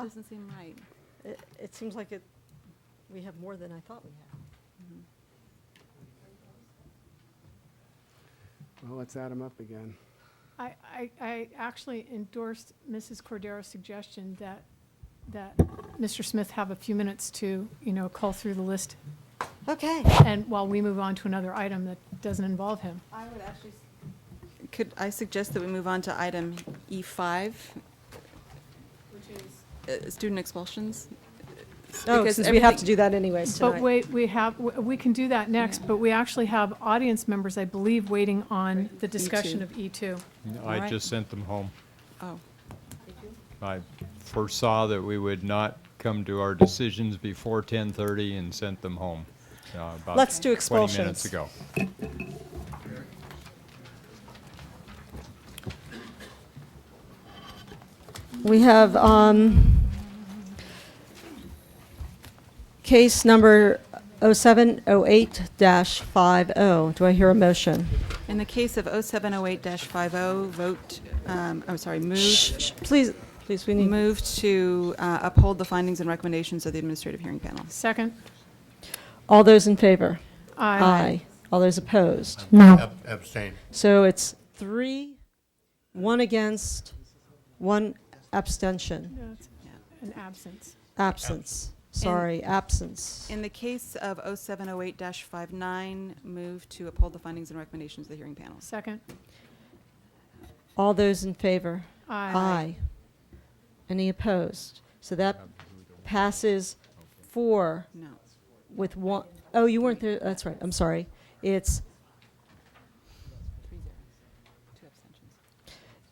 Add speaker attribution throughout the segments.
Speaker 1: It doesn't seem right.
Speaker 2: It, it seems like it, we have more than I thought we had.
Speaker 1: Mm-hmm.
Speaker 3: Well, let's add them up again.
Speaker 4: I, I, I actually endorsed Mrs. Cordero's suggestion that, that Mr. Smith have a few minutes to, you know, call through the list,
Speaker 2: Okay.
Speaker 4: and while we move on to another item that doesn't involve him.
Speaker 1: I would actually. Could I suggest that we move on to item E E5? Which is? Uh, Student expulsions?
Speaker 2: No,
Speaker 1: Because
Speaker 2: Oh, since we have
Speaker 1: everything-
Speaker 2: to do that anyways tonight.
Speaker 4: But wait, we have, w- we can do that next,
Speaker 1: Yeah.
Speaker 4: but we actually have audience members, I believe, waiting on the discussion of E E2.
Speaker 5: I
Speaker 1: Alright.
Speaker 5: just sent them home.
Speaker 1: Oh,
Speaker 5: I foresaw that we would not come to our decisions before 10:30 and sent them home. uh, about
Speaker 2: Let's do
Speaker 5: 20
Speaker 2: expulsions.
Speaker 5: minutes ago.
Speaker 2: We have, um, case number 0708-50. oh. Do I hear a motion?
Speaker 1: in the case of 0708-50, oh, vote, um, I'm sorry,
Speaker 2: Shh,
Speaker 1: move,
Speaker 2: shh, Please, please, we need,
Speaker 1: move to uh, uphold the findings and recommendations of the administrative hearing panel.
Speaker 4: Second?
Speaker 2: all those in favor?
Speaker 4: Aye.
Speaker 2: All those opposed?
Speaker 6: No. Abstain.
Speaker 2: So it's three, one against, one abstention,
Speaker 4: That's An absence.
Speaker 2: absence. Sorry, absence.
Speaker 1: In the case of 0708-59, move to uphold the findings and recommendations of the hearing panel.
Speaker 4: Second?
Speaker 2: All those in favor?
Speaker 4: Aye.
Speaker 2: Any opposed? So that
Speaker 5: Um,
Speaker 2: passes four
Speaker 1: No.
Speaker 2: with one, oh, you weren't there, that's right, I'm sorry. It's,
Speaker 1: Three zeros, two abstentions.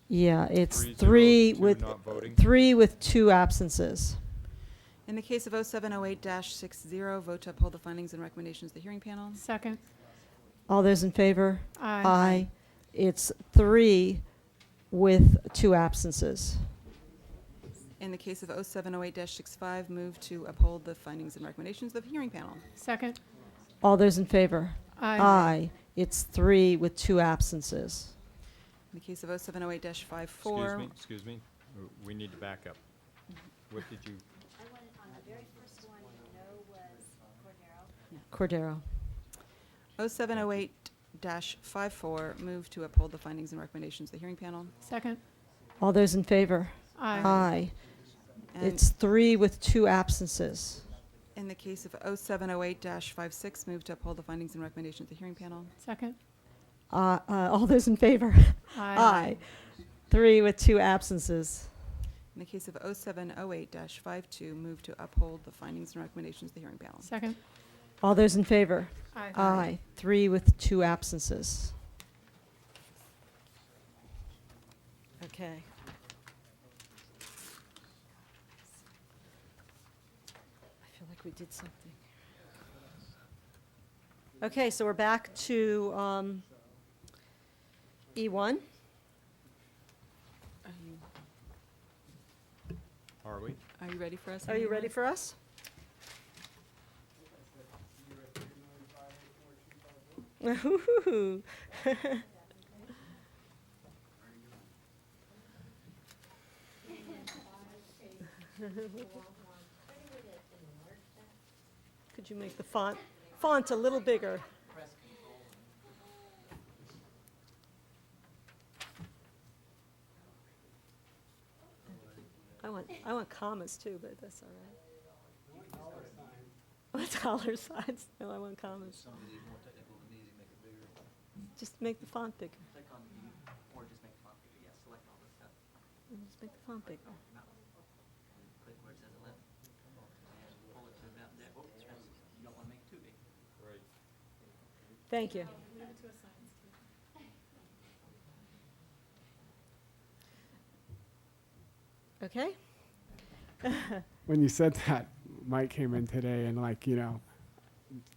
Speaker 2: yeah, it's
Speaker 5: Three
Speaker 2: three
Speaker 5: zeros, two
Speaker 2: with,
Speaker 5: not voting.
Speaker 2: three with two absences.
Speaker 1: In the case of 0708-60, vote to uphold the findings and recommendations of the hearing panel.
Speaker 4: Second?
Speaker 2: All those in favor?
Speaker 4: Aye.
Speaker 2: It's three with two absences.
Speaker 1: In the case of 0708-65, move to uphold the findings and recommendations of the hearing panel.
Speaker 4: Second?
Speaker 2: All those in favor?
Speaker 4: Aye.
Speaker 2: It's three with two absences.
Speaker 1: In the case of 0708-54.
Speaker 5: Excuse me, excuse me. W- We need to back up. What did you,
Speaker 7: I wanted on the very first one, no was Cordero.
Speaker 2: Cordero.
Speaker 1: 0708-54, move to uphold the findings and recommendations of the hearing panel.
Speaker 4: Second?
Speaker 2: All those in favor?
Speaker 4: Aye.
Speaker 2: Aye.
Speaker 1: And
Speaker 2: It's three with two absences.
Speaker 1: In the case of 0708-56, move to uphold the findings and recommendations of the hearing panel.
Speaker 4: Second?
Speaker 2: Uh, uh, all those in favor? Aye. Three with two absences.
Speaker 1: In the case of 0708-52, move to uphold the findings and recommendations of the hearing panel.
Speaker 4: Second?
Speaker 2: All those in favor? Aye. Three with two absences. Okay. I feel like we did something. Okay, so we're back to um, E E1.
Speaker 1: Are you-
Speaker 5: are we?
Speaker 1: Are you ready for us?
Speaker 2: Are you
Speaker 1: Amanda?
Speaker 2: ready for us? Ooh. Could you make the font, font a little bigger? I want, I want commas too, but that's all right. What dollar signs? No, I want commas. Just make the font bigger. And Mm, Just make the font bigger. Oh, Thank you. Okay.
Speaker 3: When you said that, Mike came in today and like, you know,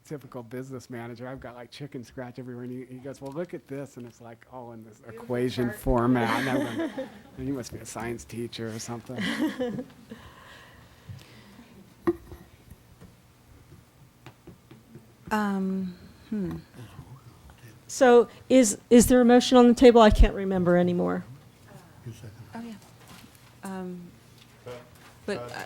Speaker 3: typical business manager, I've got like chicken scratch everywhere. And he, he goes, well, look at this. And it's like all in this equation format. And I'm going, "Man, you must be a science teacher or something.
Speaker 1: Um, hmm.
Speaker 2: So is, is there a motion on the table? I can't remember anymore.
Speaker 1: Oh, yeah. Um, But